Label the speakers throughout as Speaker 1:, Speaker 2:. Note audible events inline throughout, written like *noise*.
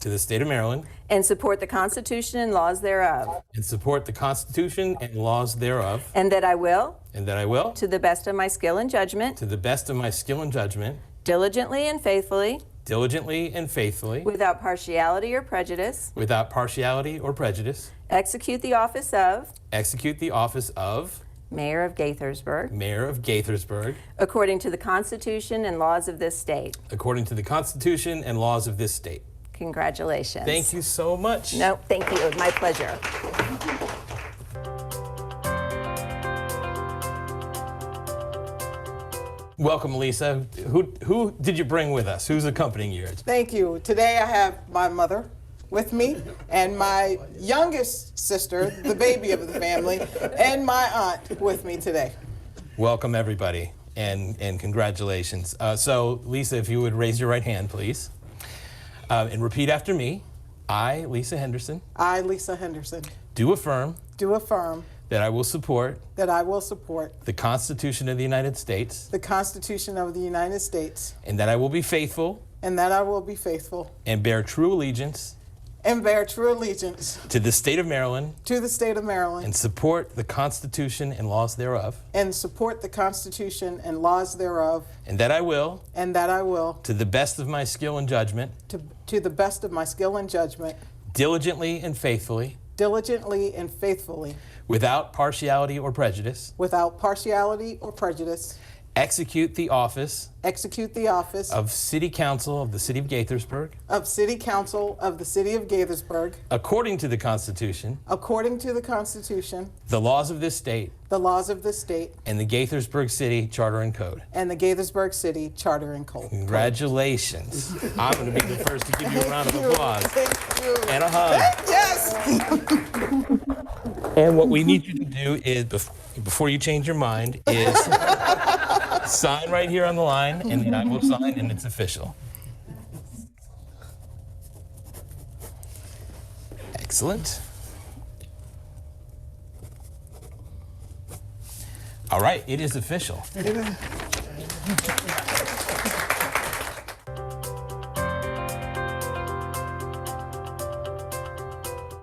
Speaker 1: to the state of Maryland
Speaker 2: and support the Constitution and laws thereof,
Speaker 1: and support the Constitution and laws thereof,
Speaker 2: and that I will,
Speaker 1: and that I will,
Speaker 2: to the best of my skill and judgment,
Speaker 1: to the best of my skill and judgment,
Speaker 2: diligently and faithfully,
Speaker 1: diligently and faithfully,
Speaker 2: without partiality or prejudice,
Speaker 1: without partiality or prejudice,
Speaker 2: execute the office of
Speaker 1: execute the office of
Speaker 2: Mayor of Gaithersburg
Speaker 1: Mayor of Gaithersburg
Speaker 2: according to the Constitution and laws of this state.
Speaker 1: according to the Constitution and laws of this state.
Speaker 2: Congratulations.
Speaker 1: Thank you so much.
Speaker 2: No, thank you. My pleasure.
Speaker 1: Welcome, Lisa. Who who did you bring with us? Who's accompanying you?
Speaker 3: Thank you. Today I have my mother with me and my youngest sister, the baby of the family, and my aunt with me today.
Speaker 1: Welcome, everybody, and and congratulations. Uh, so, Lisa, if you would raise your right hand, please, uh, and repeat after me. I, Lisa Henderson,
Speaker 3: I, Lisa Henderson,
Speaker 1: do affirm
Speaker 3: do affirm
Speaker 1: that I will support
Speaker 3: that I will support
Speaker 1: the Constitution of the United States
Speaker 3: the Constitution of the United States
Speaker 1: and that I will be faithful
Speaker 3: and that I will be faithful
Speaker 1: and bear true allegiance
Speaker 3: and bear true allegiance
Speaker 1: to the state of Maryland
Speaker 3: to the state of Maryland
Speaker 1: and support the Constitution and laws thereof,
Speaker 3: and support the Constitution and laws thereof,
Speaker 1: and that I will,
Speaker 3: and that I will,
Speaker 1: to the best of my skill and judgment,
Speaker 3: to, to the best of my skill and judgment,
Speaker 1: diligently and faithfully,
Speaker 3: diligently and faithfully,
Speaker 1: without partiality or prejudice,
Speaker 3: without partiality or prejudice,
Speaker 1: execute the office
Speaker 3: Execute the office
Speaker 1: of City Council of the City of Gaithersburg
Speaker 3: of City Council of the City of Gaithersburg
Speaker 1: according to the Constitution,
Speaker 3: according to the Constitution,
Speaker 1: the laws of this state,
Speaker 3: the laws of the state,
Speaker 1: and the Gaithersburg City Charter and Code.
Speaker 3: and the Gaithersburg City Charter and Code.
Speaker 1: Congratulations. I'm going to be the first to give you a round of applause
Speaker 3: Thank you.
Speaker 1: and a hug.
Speaker 3: Yes.
Speaker 1: And what we need you to do is, bef- before you change your mind, is sign right here on the line, and then I will sign, and it's official. Excellent. All right, it is official.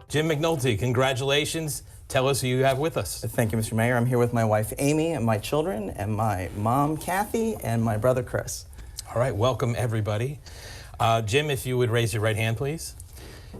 Speaker 1: Jim McNulty, congratulations. Tell us who you have with us.
Speaker 4: Thank you, Mr. Mayor. I'm here with my wife Amy and my children and my mom Kathy and my brother Chris.
Speaker 1: All right, welcome everybody. Uh, Jim, if you would raise your right hand, please,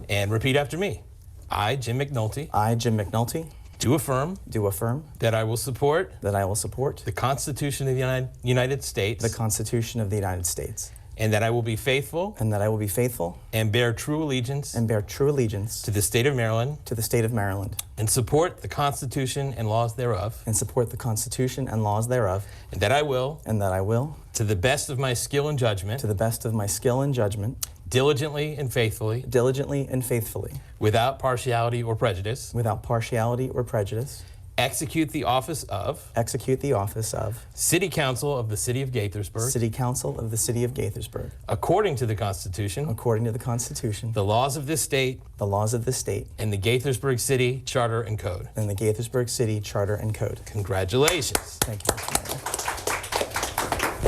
Speaker 1: and repeat after me. I, Jim McNulty,
Speaker 4: I, Jim McNulty,
Speaker 1: do affirm
Speaker 4: do affirm
Speaker 1: that I will support
Speaker 4: that I will support
Speaker 1: the Constitution of the Uni- United States
Speaker 4: the Constitution of the United States
Speaker 1: and that I will be faithful
Speaker 4: and that I will be faithful
Speaker 1: and bear true allegiance
Speaker 4: and bear true allegiance
Speaker 1: to the state of Maryland
Speaker 4: to the state of Maryland
Speaker 1: and support the Constitution and laws thereof,
Speaker 4: and support the Constitution and laws thereof,
Speaker 1: and that I will,
Speaker 4: and that I will,
Speaker 1: to the best of my skill and judgment,
Speaker 4: to the best of my skill and judgment,
Speaker 1: diligently and faithfully,
Speaker 4: diligently and faithfully,
Speaker 1: without partiality or prejudice,
Speaker 4: without partiality or prejudice,
Speaker 1: execute the office of
Speaker 4: execute the office of
Speaker 1: City Council of the City of Gaithersburg.
Speaker 4: City Council of the City of Gaithersburg
Speaker 1: according to the Constitution,
Speaker 4: according to the Constitution,
Speaker 1: the laws of this state,
Speaker 4: the laws of this state,
Speaker 1: and the Gaithersburg City Charter and Code.
Speaker 4: and the Gaithersburg City Charter and Code.
Speaker 1: Congratulations.
Speaker 4: Thank you.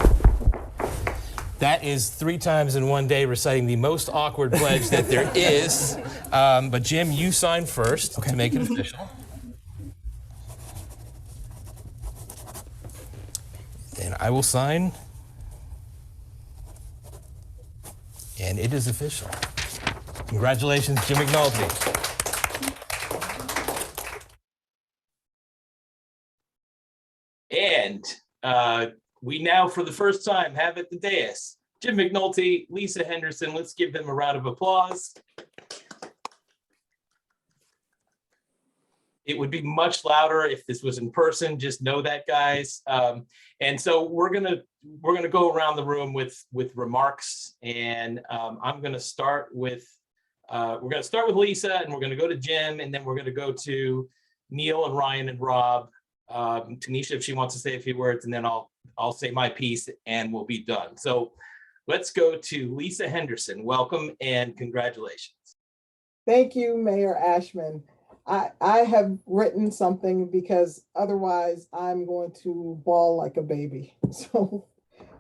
Speaker 4: Mr. Mayor.
Speaker 1: That is three times in one day reciting the most awkward pledge that there is. Um, but Jim, you sign first to make it official. Then I will sign. And it is official. Congratulations, Jim McNulty. And uh, we now, for the first time, have at the dais Jim McNulty, Lisa Henderson. Let's give them a round of applause. It would be much louder if this was in person. Just know that, guys. Um, and so we're gonna we're gonna go around the room with with remarks, and um, I'm gonna start with uh, we're gonna start with Lisa, and we're gonna go to Jim, and then we're gonna go to Neil and Ryan and Rob, um, Tanisha if she wants to say a few words, and then I'll I'll say my piece and we'll be done. So let's go to Lisa Henderson. Welcome and congratulations.
Speaker 3: Thank you, Mayor Ashman. I, I have written something because otherwise I'm going to bawl like a baby. *laughs* So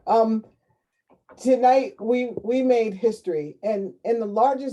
Speaker 3: um, tonight we we made history and in the largest